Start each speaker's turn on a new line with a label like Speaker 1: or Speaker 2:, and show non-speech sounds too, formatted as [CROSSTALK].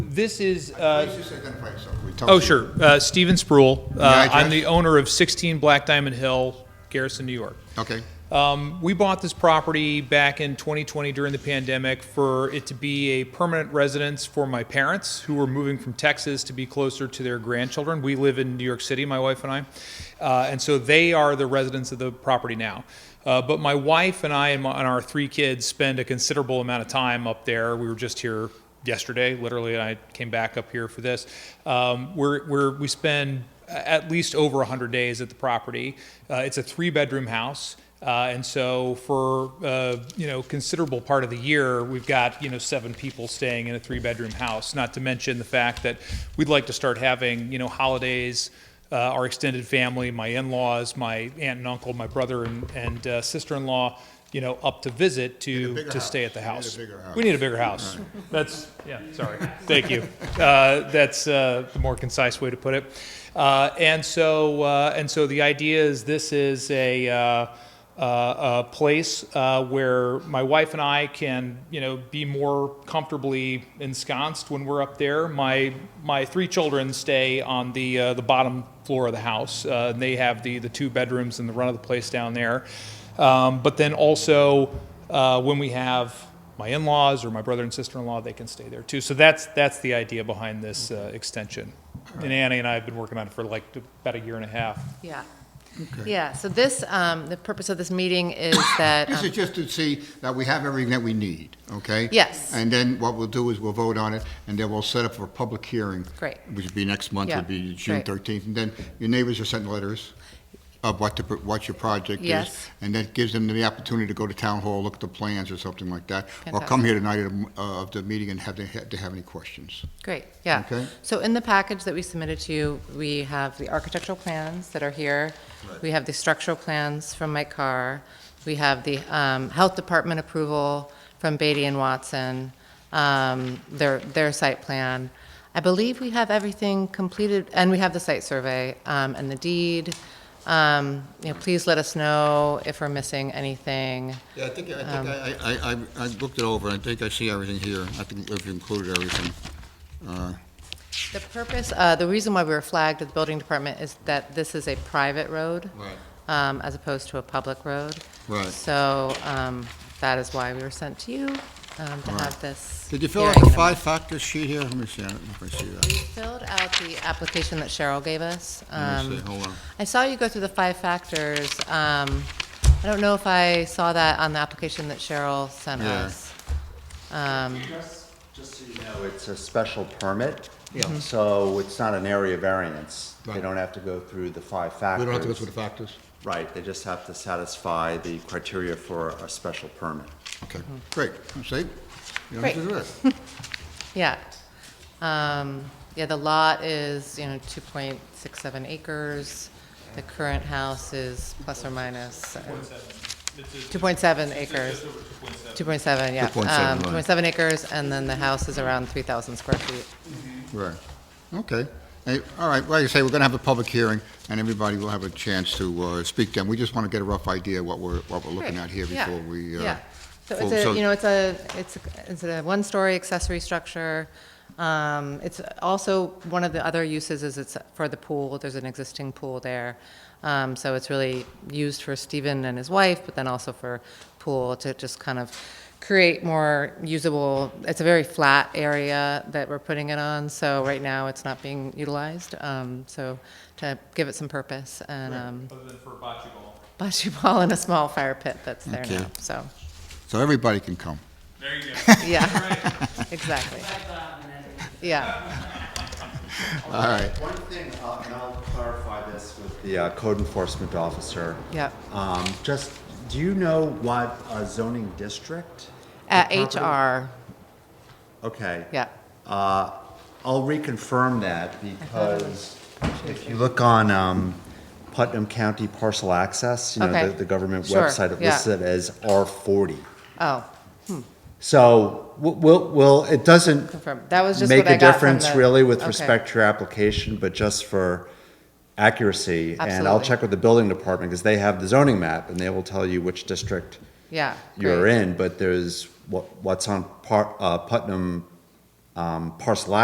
Speaker 1: this is,
Speaker 2: Please
Speaker 1: uh,
Speaker 2: just identify yourself. We tell
Speaker 1: oh,
Speaker 2: you.
Speaker 1: sure, uh, Steven Spruill.
Speaker 2: The
Speaker 1: Uh, I'm
Speaker 2: address?
Speaker 1: the owner of 16 Black Diamond Hill, Garrison, New York.
Speaker 2: Okay,
Speaker 1: Um, we bought this property back in 2020 during the pandemic for it to be a permanent residence for my parents who were moving from Texas to be closer to their grandchildren. We live in New York City, my wife and I, uh, and so they are the residents of the property now. Uh, but my wife and I and, my, and our three kids spend a considerable amount of time up there. We were just here yesterday, literally, and I came back up here for this. Um, we're, we're, we spend at least over 100 days at the property. Uh, it's a three bedroom house. Uh, and so for, uh, you know, considerable part of the year, we've got, you know, seven people staying in a three bedroom house, not to mention the fact that we'd like to start having, you know, holidays, uh, our extended family, my in-laws, my aunt and uncle, my brother and, and uh, sister-in-law, you know, up to visit to,
Speaker 2: bigger
Speaker 1: to stay at the
Speaker 2: house.
Speaker 1: house.
Speaker 2: We need a bigger house.
Speaker 1: We need a bigger house. That's, [LAUGHS] yeah, sorry. Thank you. Uh, That's uh, the more concise way to put it. Uh, And so, uh, and so the idea is this is a, uh, uh, a place uh, where my wife and I can, you know, be more comfortably ensconced when we're up there. My, my three children stay on the, uh, the bottom floor of the house. Uh, and They have the, the two bedrooms and the run of the place down there. Um, But then also, uh, when we have my in-laws or my brother and sister-in-law, they can stay there too. So that's, that's the idea behind this uh, extension. And Annie and I have been working on it for like about a year and a half.
Speaker 3: Yeah. Yeah, so this, um, the purpose of this meeting is [COUGHS] that,
Speaker 2: this
Speaker 3: um,
Speaker 2: is just to see that we have everything that we need, okay?
Speaker 3: Yes.
Speaker 2: And then what we'll do is we'll vote on it, and then we'll set up for a public hearing.
Speaker 3: Great.
Speaker 2: Which would be next month,
Speaker 3: Yeah,
Speaker 2: would be June
Speaker 3: great.
Speaker 2: thirteenth, and then your neighbors are sent letters of what the, what your project is.
Speaker 3: Yes.
Speaker 2: And that gives them the opportunity to go to town hall, look at the plans or something like that. Or come
Speaker 3: Fantastic.
Speaker 2: here tonight of, of the meeting and have, they have they have any questions.
Speaker 3: great, yeah.
Speaker 2: Okay.
Speaker 3: So in the package that we submitted to you, we have the architectural plans that are here. We have the structural plans from Mike Carr. We have the um, Health Department approval from Beatty and Watson, um, their, their site plan. I believe we have everything completed, and we have the site survey um, and the deed. Um, You know, please let us know if we're missing anything.
Speaker 2: Yeah, I think, I
Speaker 3: Um,
Speaker 2: think, I, I, I- I looked it over, I think I see everything here, I think we've included everything. Uh,
Speaker 3: The purpose, uh, the reason why we were flagged at the building department is that this is a private road.
Speaker 2: Right.
Speaker 3: Um, as opposed to a public road.
Speaker 2: Right.
Speaker 3: So, um, that is why we were sent to you, um, to have this.
Speaker 2: Did you fill out
Speaker 3: hearing
Speaker 2: the
Speaker 3: in a-
Speaker 2: five-factor sheet here? Let me see, I don't know if I see
Speaker 3: We
Speaker 2: that.
Speaker 3: filled out the application that Cheryl gave us.
Speaker 2: Let me
Speaker 3: um,
Speaker 2: see, hold on.
Speaker 3: I saw you go through the five factors. Um, I don't know if I saw that on the application that Cheryl sent
Speaker 2: Yeah.
Speaker 3: us. Um,
Speaker 4: Just just so you know, it's a special permit, so it's not an area variance. They
Speaker 2: Mm-hmm. Right.
Speaker 4: don't have to go through the five
Speaker 2: We
Speaker 4: factors.
Speaker 2: don't have to go through the factors?
Speaker 4: Right, they just have to satisfy the criteria for a special permit.
Speaker 2: Okay, great, see? You
Speaker 3: Great.
Speaker 2: understood it. [LAUGHS]
Speaker 3: Yeah. Um, Yeah, the lot is, you know, 2.67 acres. The current house is plus or minus. uh, 2.7 acres. 2.7, yeah.
Speaker 2: 2.7,
Speaker 3: Um,
Speaker 2: right.
Speaker 3: 2.7 acres, and then the house is around 3,000 square feet.
Speaker 2: Right, okay. Hey, All right, like I say, we're going to have a public hearing, and everybody will have a chance to uh, speak then. We just want to get a rough idea what we're, what we're looking
Speaker 3: Great.
Speaker 2: at here
Speaker 3: Yeah.
Speaker 2: before we... uh,
Speaker 3: Yeah. So it's
Speaker 2: before-
Speaker 3: a, you know, it's a, it's, a- it's a one-story accessory structure. Um, It's also, one of the other uses is it's for the pool, there's an existing pool there. Um, So it's really used for Stephen and his wife, but then also for pool to just kind of create more usable, it's a very flat area that we're putting it on, so right now it's not being utilized. Um, So to give it some purpose and, um,
Speaker 1: Other than for bocce ball.
Speaker 3: bocce ball and a small fire pit that's there
Speaker 2: Okay.
Speaker 3: now, so.
Speaker 2: So everybody can come.
Speaker 1: There you go.
Speaker 3: Yeah, [LAUGHS] exactly. Yeah,
Speaker 2: All right,
Speaker 4: One thing, uh, and I'll clarify this with the uh, code enforcement officer.
Speaker 3: yeah.
Speaker 4: Um, Just, do you know what uh, zoning district? the
Speaker 3: At
Speaker 4: property-
Speaker 3: HR,
Speaker 4: Okay.
Speaker 3: yeah,
Speaker 4: Uh, I'll reconfirm that because if you look on um, Putnam County Parcel Access, you
Speaker 3: Okay.
Speaker 4: know, the- the government
Speaker 3: Sure,
Speaker 4: website, it
Speaker 3: yeah.
Speaker 4: lists it as R40.
Speaker 3: oh,
Speaker 4: So, w- we'll, we'll, it doesn't
Speaker 3: confirm, that was just
Speaker 4: make
Speaker 3: what I
Speaker 4: a
Speaker 3: got from
Speaker 4: difference
Speaker 3: the-
Speaker 4: really with
Speaker 3: okay.
Speaker 4: respect to your application, but just for accuracy. And I'll
Speaker 3: Absolutely.
Speaker 4: check with the building department because they have the zoning map and they will tell you which district
Speaker 3: Yeah.
Speaker 4: you're
Speaker 3: great.
Speaker 4: in, but there's what, what's on Par- uh, Putnam um, Parcel